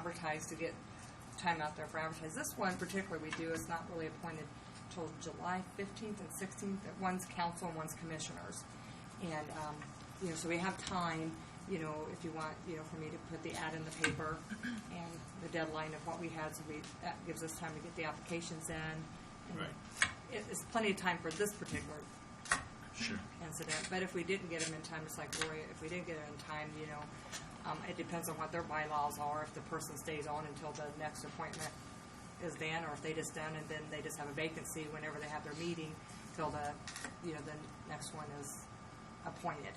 advertise to get time out there for advertise. This one particularly we do, it's not really appointed till July fifteenth and sixteenth, one's council and one's commissioners. And, um, you know, so we have time, you know, if you want, you know, for me to put the ad in the paper and the deadline of what we had, so we, that gives us time to get the applications in. and Right. It, it's plenty of time for this particular Sure. incident. But if we didn't get them in time, it's like Lori, if we didn't get them in time, you know, um, it depends on what their bylaws are, if the person stays on until the next appointment is then, or if they just done and then they just have a vacancy whenever they have their meeting till the, you know, the next one is appointed,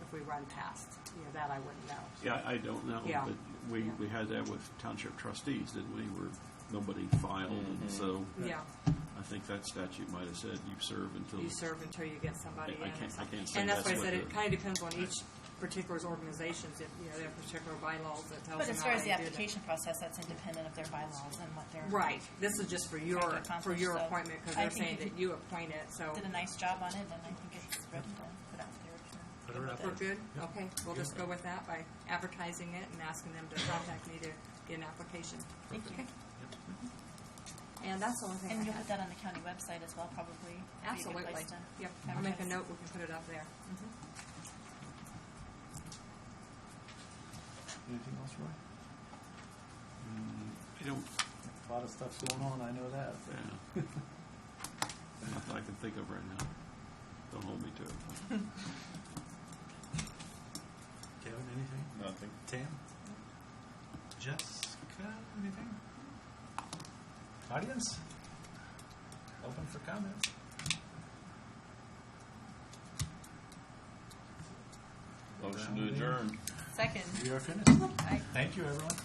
if we run past, you know, that I wouldn't know. Yeah, I I don't know, Yeah. but we, Yeah. we had that with township trustees, didn't we, where nobody filed, and so Yeah, I think that statute might have said you serve until. you serve until you get somebody in. I- I can't- I can't say And that's why I that's said what it the- kinda depends on each particular organization's, if, you know, their particular bylaws that tells them how But as far as they the do that. application process, that's independent of their bylaws and what they're. Right, this is just for your, for your appointment, because I they're think saying you that you appoint it, so. Did a nice job on it, and I think it's ready to put out there. Put her out We're there. good? Okay, we'll just go with that by advertising it and asking them to contact me to get an application. Thank you. Okay. And that's the only thing I And you'll put had. that on the county website as well, probably. Be a good Absolutely. place to Yep, I'll make a advertise. note, we can put it up there. Anything else, Roy? Mm, I don't, A lot of stuff's going on, I know that. yeah. Nothing I can think of right now. Don't hold me to it. Kevin, anything? Nothing. Tam? Jessica, anything? Audience? Open for comments. Motion to adjourn. Second. We are finished. Aye. Thank you, everyone.